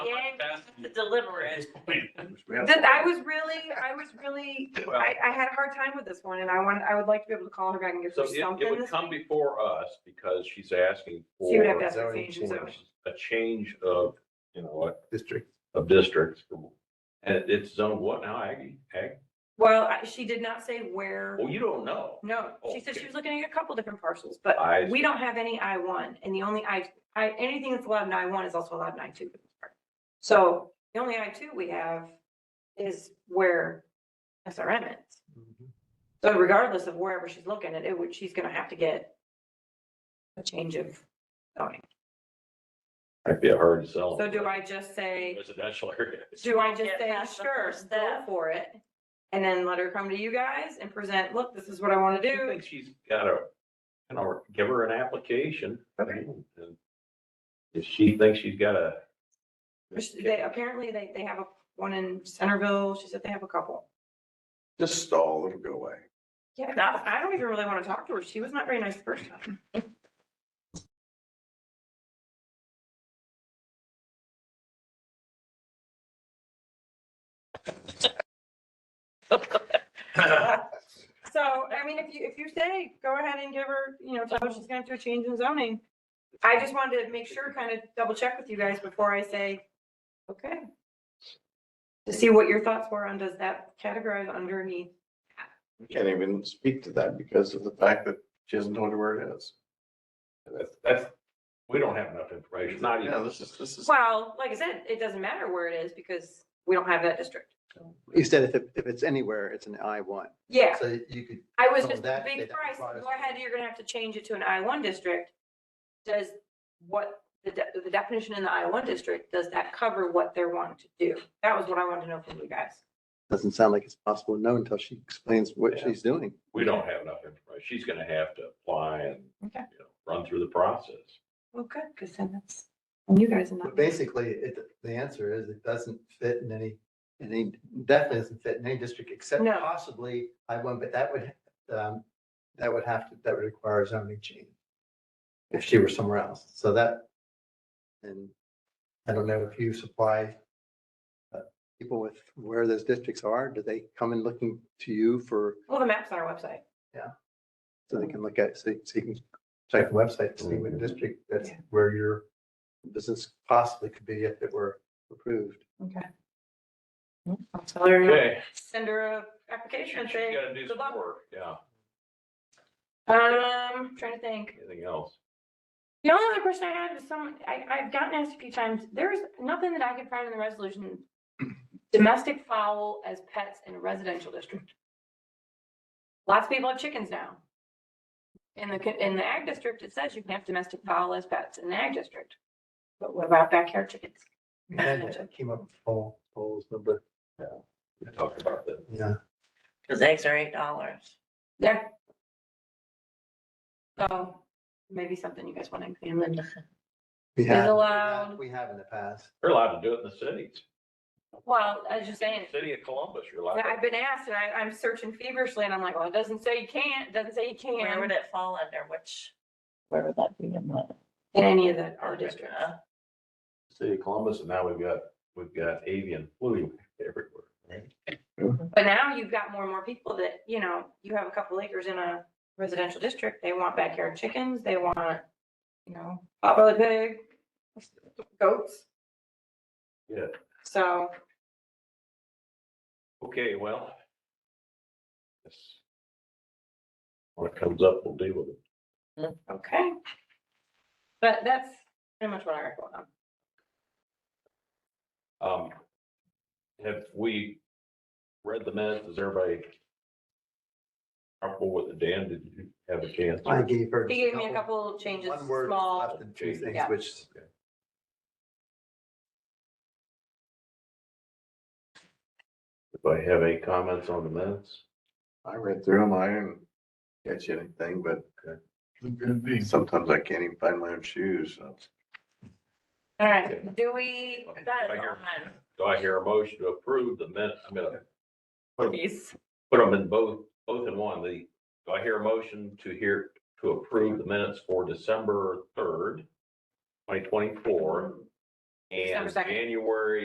deliver it. That I was really, I was really, I, I had a hard time with this one and I want, I would like to be able to call her back and give So her it, it something. would come before us because she's asking She would have for to ask for Zoning changes, so- a change of, you know, District. of districts. And it's zone what now, Aggie? Ag? Well, I- she did not say where, Well, you don't know. no, she said Oh, Okay. she Oh, was looking at a couple different parcels, but I, we don't have any I one and the only I, I, anything that's allowed in I one is also allowed in I two. So the only I two we have is where SRM is. So regardless of wherever she's looking at it, would, she's gonna have to get a change of zoning. might be a hard sell. So do I just say, Residential area. do I just Get say, past the sure, first go step." for it? And then let her come to you guys and present, look, this is what I wanna I do. think she's gotta, you know, give her an application. Okay. And If she thinks she's gotta. They, apparently they, they have a, one in Centerville, she said they have a couple. Just stall, it'll go away. Yeah, that, I don't even really wanna talk to her, she was not very nice the first time. So, I mean, if you, if you say, go ahead and give her, you know, tell her she's gonna have to change in zoning. I just wanted to make sure, kind of double check with you guys before I say, okay. To see what your thoughts were on, does that categorize underneath? We Can't even speak to that because of the fact that she hasn't told her where it is. That's, that's, we don't have enough information, not Yeah, even. this is, this is. Well, like I said, it doesn't matter where it is because we don't have that district. You said if, it- if it's anywhere, it's an I one. Yeah, So you could, I was So just, that- big that price, go requires- ahead, you're gonna have to change it to an I one district. Does what, the, de- the definition in the I one district, does that cover what they're wanting to do? That was what I wanted to know from you guys. doesn't sound like it's possible to know until she explains what Yeah. she's doing. We don't have enough information. She's gonna have to apply and, you Okay. know, run through the process. Well, good, because then that's, and you guys are not. But basically, it, the answer is it doesn't fit in any, in any, definitely doesn't fit in any district except No. possibly I one, but that would, um, that would have to, that would require a zoning change. If she were somewhere else, so that, and I don't know if you supply, uh, People with where those districts are, do they come in looking to you for, Well, the map's on our website. so they can look at, so so you can, check the website to see what district that's Yeah. where your business possibly could be if it were approved. I'll tell her, Okay. send her a application and She's say, gotta do good some luck. work, yeah. Um, trying to think. Anything else? The only other question I had was some, I, I've gotten asked a few times, there's nothing that I could find in the resolution. Domestic fowl as pets in a residential district. Lots of people have chickens now. In the, co- in the ag district, it says you can have domestic fowl as pets in the ag district. But what about backyard chickens? And it came up full, polls, number, We talked about that. yeah. Cause eggs are eight dollars. Yeah. So maybe something you guys want to examine. we Is have. allowed, We have in the past. You're allowed to do it in the cities. well, I was just saying, City of Columbus, you're allowed. Yeah, I've to- been asked and I, I'm searching feverishly and I'm like, well, it doesn't say you can't, it doesn't say you Where would can. it fall under, which? Where would that be in the? In any of the, our districts. Uh, City of Columbus, and now we've got, we've got avian flu everywhere. right? But now you've got more and more people that, you know, you have a couple acres in a residential district, they want backyard chickens, they want, you know, potbelly pig, goats. Yeah. So, Okay, well. yes. When it comes up, we'll deal with it. okay. But that's pretty much what I recommend. Um, have we read the minutes? Is everybody comfortable with it? Dan, did you have a chance? I gave her. He just gave me a couple changes, One word small, left and two things, Yeah. which If I have any comments on the minutes? I read through them, I didn't catch anything, but sometimes I can't even find my own shoes, so. all right, do we, That Right is here. on. Do I hear a motion to approve the minute? I'm gonna Please. put them in both, both in one. The, do I hear a motion to hear, to approve the minutes for December third, twenty twenty-four? December And second. January